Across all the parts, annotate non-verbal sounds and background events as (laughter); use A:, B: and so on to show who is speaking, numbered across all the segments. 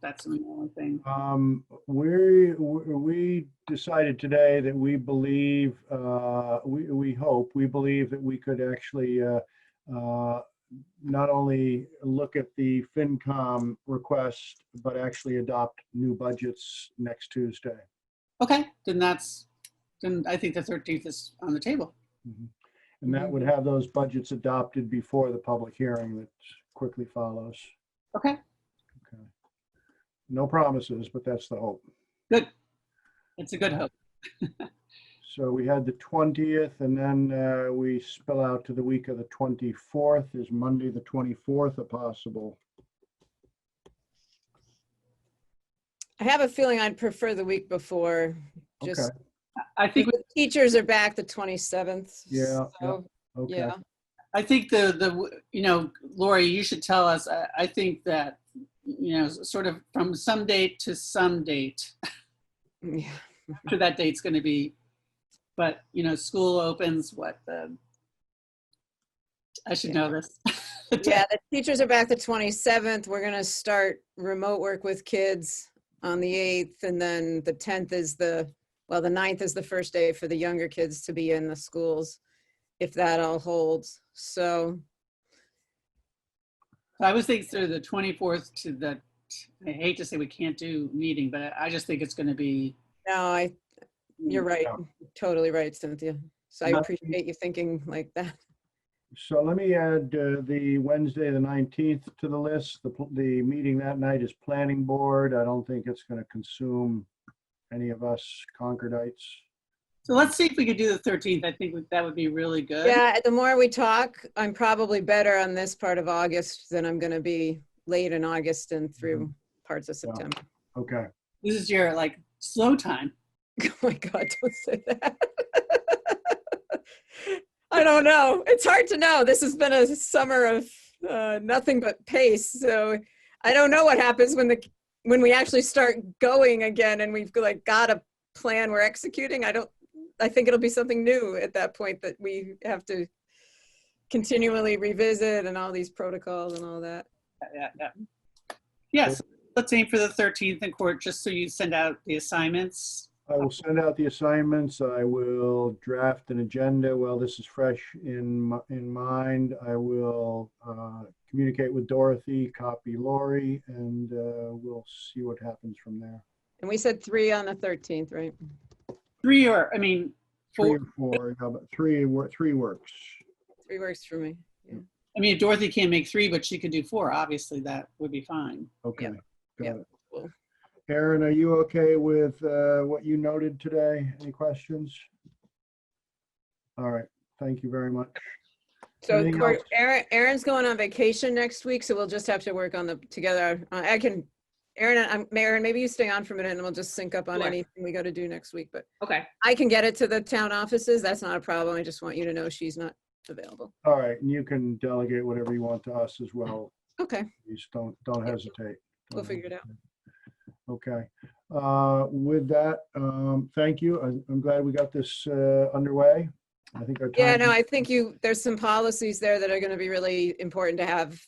A: That's the only thing.
B: Um, we, we decided today that we believe, uh, we, we hope, we believe that we could actually, uh, uh, not only look at the FinCom request, but actually adopt new budgets next Tuesday.
A: Okay, then that's, then I think the 13th is on the table.
B: Mm-hmm. And that would have those budgets adopted before the public hearing that quickly follows.
A: Okay,
B: Okay. No promises, but that's the hope.
A: it's a good hope.
B: So we had the 20th and then uh, we spill out to the week of the 24th. Is Monday, the 24th, a possible?
C: I have a feeling I'd prefer the week before. Just,
B: Okay,
A: I think,
C: because teachers are back the 27th.
B: Yeah, yeah,
C: so,
B: okay.
C: Yeah,
A: I think the, the, you know, Lori, you should tell us, I, I think that, you know, sort of from some date to some date,
C: yeah.
A: after that date's going to be, but, you know, school opens, what, the, I should know this. (laughs)
C: Yeah, the teachers are back the 27th. We're going to start remote work with kids on the 8th. And then the 10th is the, well, the 9th is the first day for the younger kids to be in the schools, if that all holds. So,
A: I was thinking through the 24th to the, I hate to say we can't do meeting, but I just think it's going to be.
C: no, I, you're right.
B: Yeah.
C: Totally right, Cynthia. So I
A: Nothing-
C: appreciate you thinking like that.
B: So let me add uh, the Wednesday, the 19th to the list. The, pl- the meeting that night is planning board. I don't think it's going to consume any of us Concordites.
A: So let's see if we could do the 13th. I think that would be really good.
C: Yeah, the more we talk, I'm probably better on this part of August than I'm going to be late in August and through parts of
B: Yeah.
C: September.
B: Okay,
A: This is your like slow time.
C: Oh my God, don't say that. I don't know. It's hard to know. This has been a summer of uh, nothing but pace. So I don't know what happens when the when we actually start going again and we've like got a plan we're executing. I don't. I think it'll be something new at that point that we have to continually revisit and all these protocols and all that.
A: Yeah, yeah. Yes, let's aim for the 13th in court, just so you send out the assignments.
B: I will send out the assignments. I will draft an agenda while this is fresh in, mi- in mind. I will uh, communicate with Dorothy, copy Lori, and uh, we'll see what happens from there.
C: And we said three on the 13th, right?
A: Three or, I mean,
B: Three
A: four.
B: or four, how about three, wor- three works.
C: Three works for me. Yeah.
A: I mean, if Dorothy can't make three, but she could do four, obviously that would be fine.
B: Okay.
C: yeah,
B: got it.
C: cool.
B: Aaron, are you okay with uh, what you noted today? Any questions? All right, thank you very much.
C: So
B: Anything
C: Cor-
B: else?
C: Aaron, Aaron's going on vacation next week, so we'll just have to work on the, together. Uh, I can, Aaron, I'm, Aaron, maybe you stay on for a minute and we'll just sync up on
A: Sure.
C: anything we got to do next week, but
A: Okay.
C: I can get it to the town offices. That's not a problem. I just want you to know she's not available.
B: All right, and you can delegate whatever you want to us as well.
C: Okay,
B: Please don't, don't
C: Yeah.
B: hesitate.
C: we'll
B: Don't
C: figure it out.
B: Okay. Uh, With that, um, thank you. I'm I'm glad we got this uh, underway. I think our time.
C: Yeah, no, I think you, there's some policies there that are going to be really important to have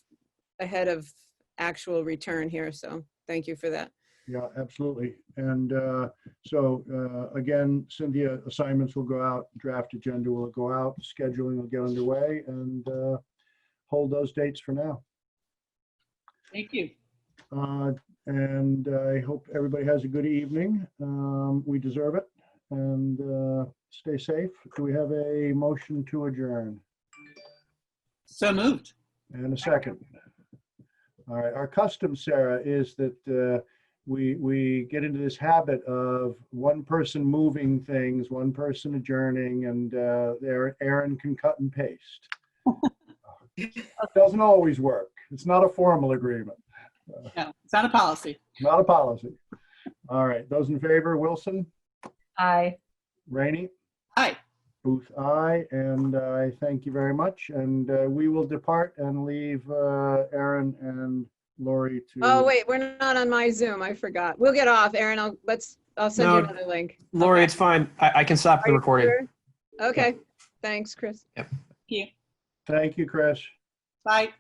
C: ahead of actual return here, so thank you for that.
B: Yeah, absolutely. And uh, so uh, again, Cynthia, assignments will go out, draft agenda will go out, scheduling will get underway, and uh, hold those dates for now.
A: Thank you.
B: Uh, And I hope everybody has a good evening. Um, We deserve it. And uh, stay safe. Do we have a motion to adjourn?
A: So moved.
B: And a second. All right, our custom, Sarah, is that uh, we, we get into this habit of one person moving things, one person adjourning, and uh, there- Aaron can cut and
C: (laughs)
B: paste. That Doesn't always work. It's not a formal agreement,
A: No, it's not a policy.
B: not a policy. All right, those in favor, Wilson,
D: Aye.
B: Rainey,
A: Hi.
B: Booth, aye, and I thank you very much. And uh, we will depart and leave uh, Aaron and Lori to.
C: Oh, wait, we're not on my Zoom. I forgot. We'll get off, Aaron. I'll, let's, I'll send you
E: No.
C: another link.
E: Lori, it's fine. I, I can stop
C: Are
E: the
C: you
E: recording.
C: sure? Okay, thanks, Chris.
A: Thank you.
B: Thank you, Chris.
A: Bye.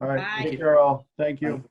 B: All right,
A: Bye.
B: take care all. Thank you.